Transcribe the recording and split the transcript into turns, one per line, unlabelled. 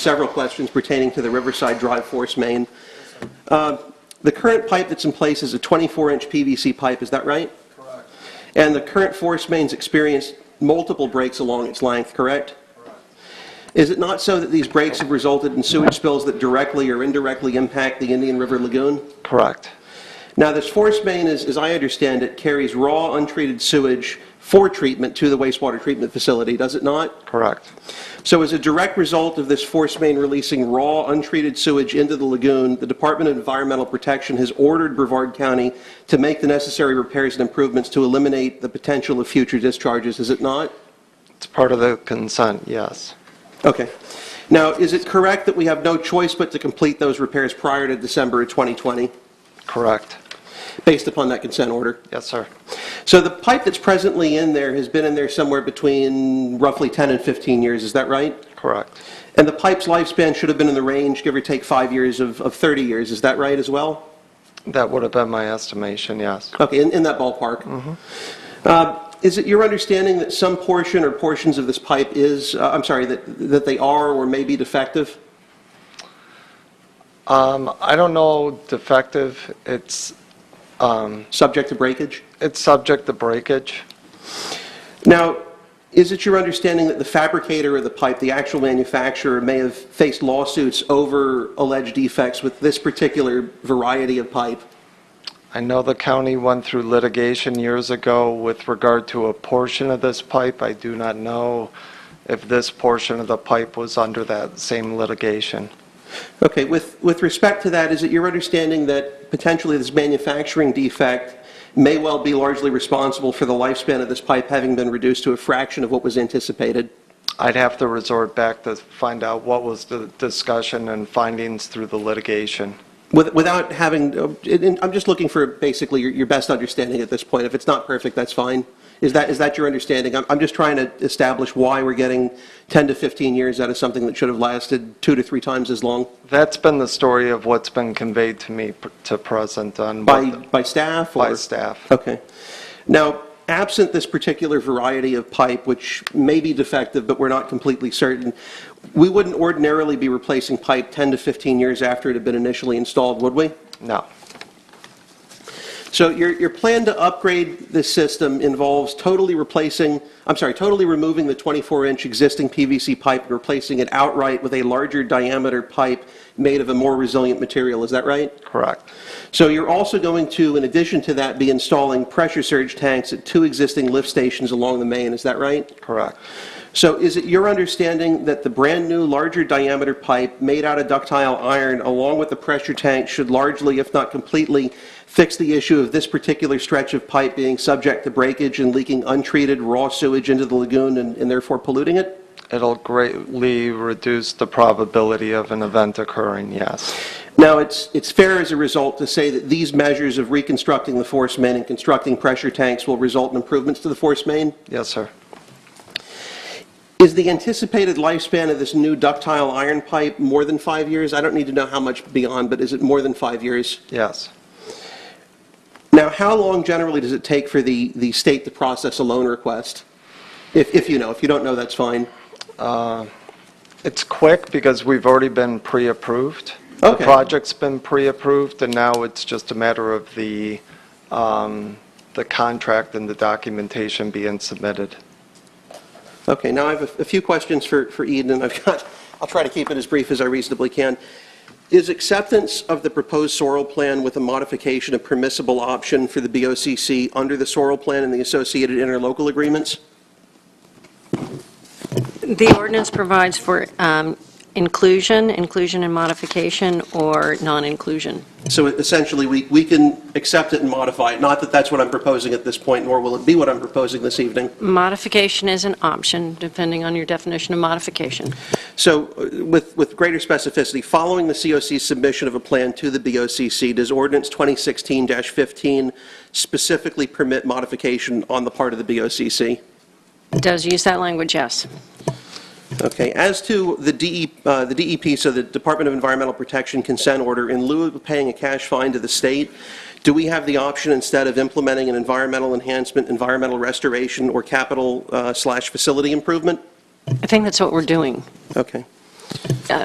several questions pertaining to the Riverside Drive Force Main. Uh, The current pipe that's in place is a 24-inch PVC pipe, is that right?
Correct,
And the current force main's experienced multiple breaks along its length, correct?
correct.
Is it not so that these breaks have resulted in sewage spills that directly or indirectly impact the Indian River Lagoon?
Correct.
Now, this force main, is- as I understand it, carries raw untreated sewage for treatment to the wastewater treatment facility, does it not?
Correct.
So as a direct result of this force main releasing raw, untreated sewage into the lagoon, the Department of Environmental Protection has ordered Brevard County to make the necessary repairs and improvements to eliminate the potential of future discharges, is it not?
It's part of the consent, yes.
Okay. Now, is it correct that we have no choice but to complete those repairs prior to December of 2020,
Correct.
based upon that consent order?
Yes, sir.
So the pipe that's presently in there has been in there somewhere between roughly 10 and 15 years, is that right?
Correct.
And the pipe's lifespan should have been in the range, give or take five years of, of 30 years, is that right as well?
That would have been my estimation, yes.
Okay, in, in that ballpark. Uh, Is it your understanding that some portion or portions of this pipe is, uh, I'm sorry, that, that they are or may be defective?
Um, I don't know defective, it's,
Subject to breakage?
it's subject to breakage.
Now, is it your understanding that the fabricator of the pipe, the actual manufacturer, may have faced lawsuits over alleged defects with this particular variety of pipe?
I know the county went through litigation years ago with regard to a portion of this pipe. I do not know if this portion of the pipe was under that same litigation.
Okay, with, with respect to that, is it your understanding that potentially this manufacturing defect may well be largely responsible for the lifespan of this pipe having been reduced to a fraction of what was anticipated?
I'd have to resort back to find out what was the discussion and findings through the litigation.
With- Without having, uh, it- it- I'm just looking for basically your, your best understanding at this point. If it's not perfect, that's fine. Is that, is that your understanding? I'm, I'm just trying to establish why we're getting 10 to 15 years out of something that should have lasted two to three times as long
That's been the story of what's been conveyed to me p- to present on
by,
what the-
by staff or?
by staff.
Okay. Now, absent this particular variety of pipe, which may be defective, but we're not completely certain, we wouldn't ordinarily be replacing pipe 10 to 15 years after it had been initially installed, would we?
No,
So your, your plan to upgrade this system involves totally replacing, I'm sorry, totally removing the 24-inch existing PVC pipe and replacing it outright with a larger diameter pipe made of a more resilient material, is that right?
correct,
So you're also going to, in addition to that, be installing pressure surge tanks at two existing lift stations along the main, is that right?
correct,
So is it your understanding that the brand-new, larger diameter pipe made out of ductile iron, along with the pressure tank, should largely, if not completely, fix the issue of this particular stretch of pipe being subject to breakage and leaking untreated raw sewage into the lagoon and and therefore polluting it?
It'll greatly reduce the probability of an event occurring, yes.
Now, it's, it's fair as a result to say that these measures of reconstructing the force main and constructing pressure tanks will result in improvements to the force main?
Yes, sir.
Is the anticipated lifespan of this new ductile iron pipe more than five years? I don't need to know how much beyond, but is it more than five years?
Yes.
Now, how long generally does it take for the, the state to process a loan request? If, if you know, if you don't know, that's fine.
It's quick because we've already been pre-approved.
Okay.
The project's been pre-approved, and now it's just a matter of the, um, the contract and the documentation being submitted.
Okay, now I have a- a few questions for, for Eden, and I've got, I'll try to keep it as brief as I reasonably can. Is acceptance of the proposed soil plan with a modification a permissible option for the BOCC under the soil plan and the associated interlocal agreements?
The ordinance provides for um, inclusion, inclusion and modification, or non-inclusion.
So essentially, we, we can accept it and modify it, not that that's what I'm proposing at this point, nor will it be what I'm proposing this evening.
Modification is an option, depending on your definition of modification.
So uh, with, with greater specificity, following the COC's submission of a plan to the BOCC, does ordinance 2016-15 specifically permit modification on the part of the BOCC?
It Does use that language, yes.
Okay, as to the DE, uh, the DEP, so the Department of Environmental Protection consent order, in lieu of paying a cash fine to the state, do we have the option, instead of implementing an environmental enhancement, environmental restoration, or capital uh, slash facility improvement?
I think that's what we're doing.
Okay.
Uh,